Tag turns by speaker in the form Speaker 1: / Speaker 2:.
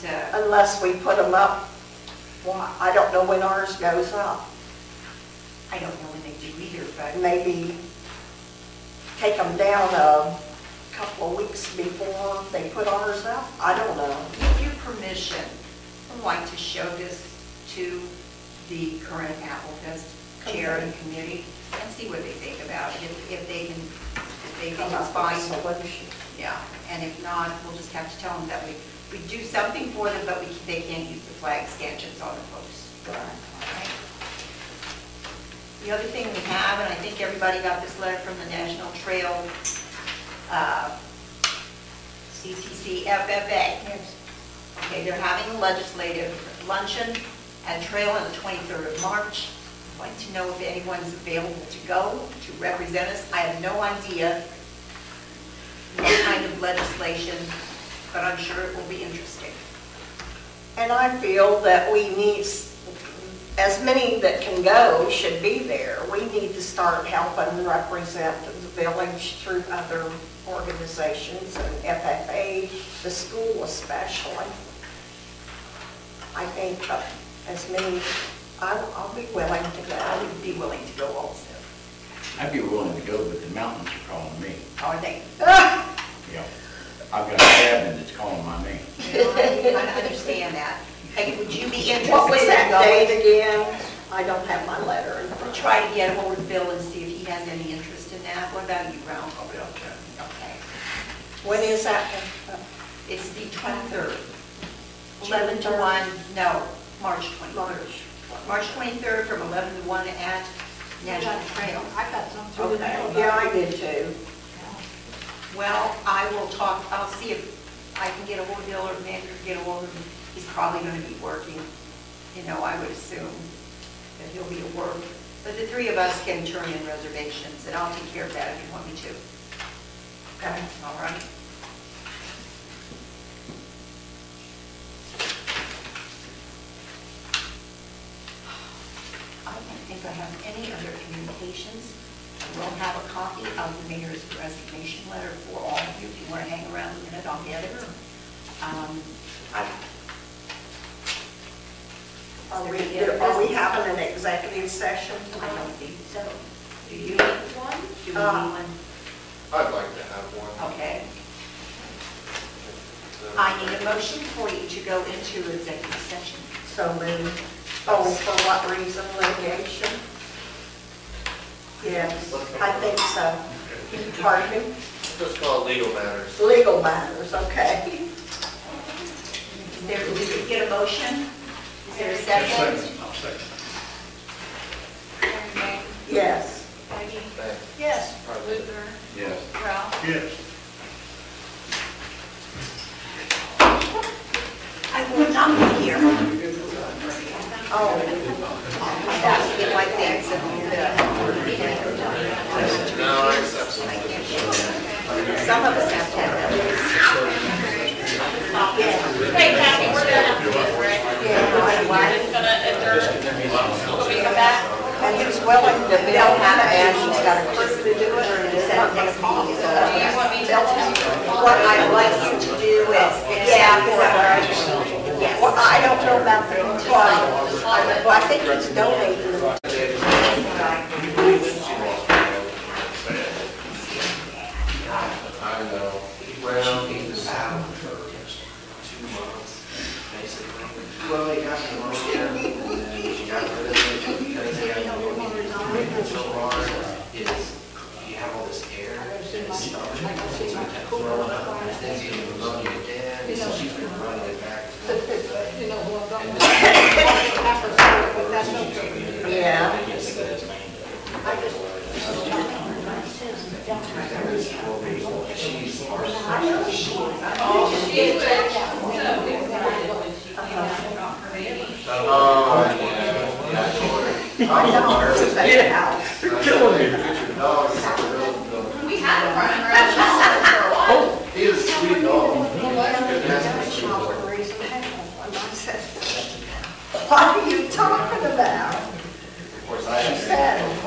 Speaker 1: to,
Speaker 2: unless we put them up. Why, I don't know when ours goes up.
Speaker 1: I don't know when they do either, but
Speaker 2: Maybe take them down a couple of weeks before they put ours up. I don't know.
Speaker 1: with your permission, I'd like to show this to the current Applefest chair and committee and see what they think about it, if- if they can, if they think
Speaker 2: Come
Speaker 1: it's
Speaker 2: up with a
Speaker 1: fine.
Speaker 2: solution.
Speaker 1: Yeah, and if not, we'll just have to tell them that we, we do something for them, but we, they can't use the flag stanchions on the posts. Alright. The other thing we have, and I think everybody got this letter from the National Trail, uh, CCC FFA.
Speaker 3: Yes.
Speaker 1: Okay, they're having a legislative luncheon at Trail on the 23rd of March. I'd like to know if anyone's available to go, to represent us. I have no idea what kind of legislation, but I'm sure it will be interesting.
Speaker 2: And I feel that we need, s- as many that can go should be there. We need to start helping represent the village through other organizations and FFA, the school especially. I think uh, as many, I'll, I'll be willing to
Speaker 1: I
Speaker 2: go.
Speaker 1: would be willing to go also.
Speaker 4: I'd be willing to go, but the mountains are calling me.
Speaker 1: Are they?
Speaker 4: Yeah. I've got a cabin that's calling my name.
Speaker 1: I understand that. Hey, would you be interested?
Speaker 2: What was that
Speaker 1: in going?
Speaker 2: date again? I don't have my letter in
Speaker 1: We'll
Speaker 2: front.
Speaker 1: try to get hold of Bill and see if he has any interest in that. What about you, Ralph?
Speaker 4: I'll be out there.
Speaker 1: Okay.
Speaker 2: When is that?
Speaker 1: It's the 23rd. 11 to 1, no, March 23rd.
Speaker 2: March.
Speaker 1: March 23rd from 11 to 1 at National Trail.
Speaker 3: I got some through the mail.
Speaker 2: Okay, yeah, I did too.
Speaker 1: Well, I will talk, I'll see if I can get a hold of Bill or Nick or get a hold of him. He's probably going to be working, you know, I would assume that he'll be at work. But the three of us can turn in reservations, and I'll take care of that if you want me to. Okay, all right? I don't think I have any other communications. I will have a copy of the mayor's resignation letter for all of you. If you want to hang around a minute, I'll get it. Um, I-
Speaker 2: Are we,
Speaker 1: Is there any
Speaker 2: are we
Speaker 1: other
Speaker 2: having an executive session
Speaker 1: business? I
Speaker 2: tonight?
Speaker 1: don't think so. Do you need one? Do you need one?
Speaker 5: I'd like to have one.
Speaker 1: Okay. I need a motion for you to go into executive session.
Speaker 2: So moved. Oh, for what reason, litigation? Yes, I think so. Pardon me?
Speaker 5: Just call it legal matters.
Speaker 2: Legal matters, okay.
Speaker 1: Is there, did you get a motion? Is there a second?
Speaker 4: I'll second.
Speaker 2: Yes.
Speaker 3: Peggy,
Speaker 5: Thanks.
Speaker 3: yes,
Speaker 5: Pardon me.
Speaker 3: Luther,
Speaker 4: Yes.
Speaker 3: Ralph.
Speaker 4: Yes.
Speaker 1: I will not be here. I'm about
Speaker 2: Oh,
Speaker 1: to get my things and, uh,
Speaker 5: No, I accept it.
Speaker 1: some of us have to have that.
Speaker 6: Hey, Kathy, we're done.
Speaker 2: yeah, right.
Speaker 6: We're gonna adjourn. Will we come back?
Speaker 2: And he's willing to bill
Speaker 1: Bill
Speaker 2: that,
Speaker 1: had, and
Speaker 2: and he's
Speaker 1: she's got
Speaker 2: got a
Speaker 1: a person
Speaker 2: person
Speaker 1: to do it, and it's at next meeting, so.
Speaker 6: Do you want me to
Speaker 2: Tell
Speaker 6: tell
Speaker 2: him
Speaker 6: you?
Speaker 2: what I'd like you to do is, yeah, yes. Well, I don't know about the employees, but I think he's donating them.
Speaker 5: I know. Well, he's
Speaker 7: two months, basically. Well, they got me last year, and then she got rid of it, because they had to work it so hard, is you have all this air, and it's stuff, and it's not that thrown up, and things get to run you to death, and so she's been running it back. and forth,
Speaker 3: You know who I'm talking
Speaker 7: And
Speaker 3: about? Half a story, but that's no joke.
Speaker 7: this-
Speaker 2: Yeah.
Speaker 7: I guess that's my- She's our
Speaker 6: She is, but-
Speaker 5: Oh, yeah.
Speaker 2: I know, it's a house.
Speaker 5: You're killing me. Your dog is a real dog.
Speaker 6: We had a running around for a while.
Speaker 5: He is a sweet dog. Good ass.
Speaker 2: What are you talking about?
Speaker 5: Of course, I
Speaker 2: She
Speaker 5: have.
Speaker 2: said,